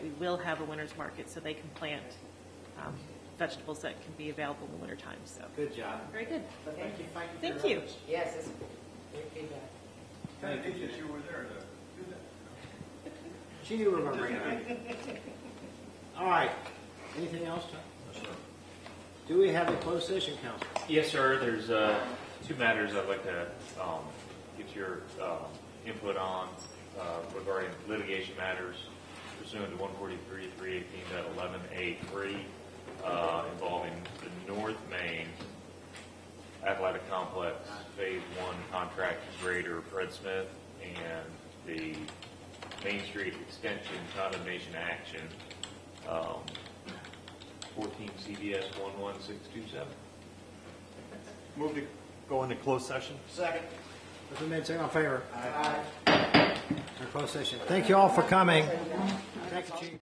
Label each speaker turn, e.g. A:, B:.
A: will have a winter's market, so they can plant um, vegetables that can be available in the wintertime, so.
B: Good job.
A: Very good.
C: But thank you.
A: Thank you.
C: Yes, it's great feedback.
D: Kind of neat that you were there to do that.
B: She knew we were bringing it. All right. Anything else, Tom? Do we have a closed session, Council?
E: Yes, sir. There's uh, two matters I'd like to um, get your um, input on uh, regarding litigation matters pursuant to 143, 318.11A3 uh, involving the North Main Athletic Complex Phase 1 contract grader Fred Smith and the Main Street Extension condemnation action, um, 14 CBS 11627.
D: Move to go into closed session?
B: Second. If we made second, all in favor? Aye. Our closed session. Thank you all for coming. Thank you, Chief.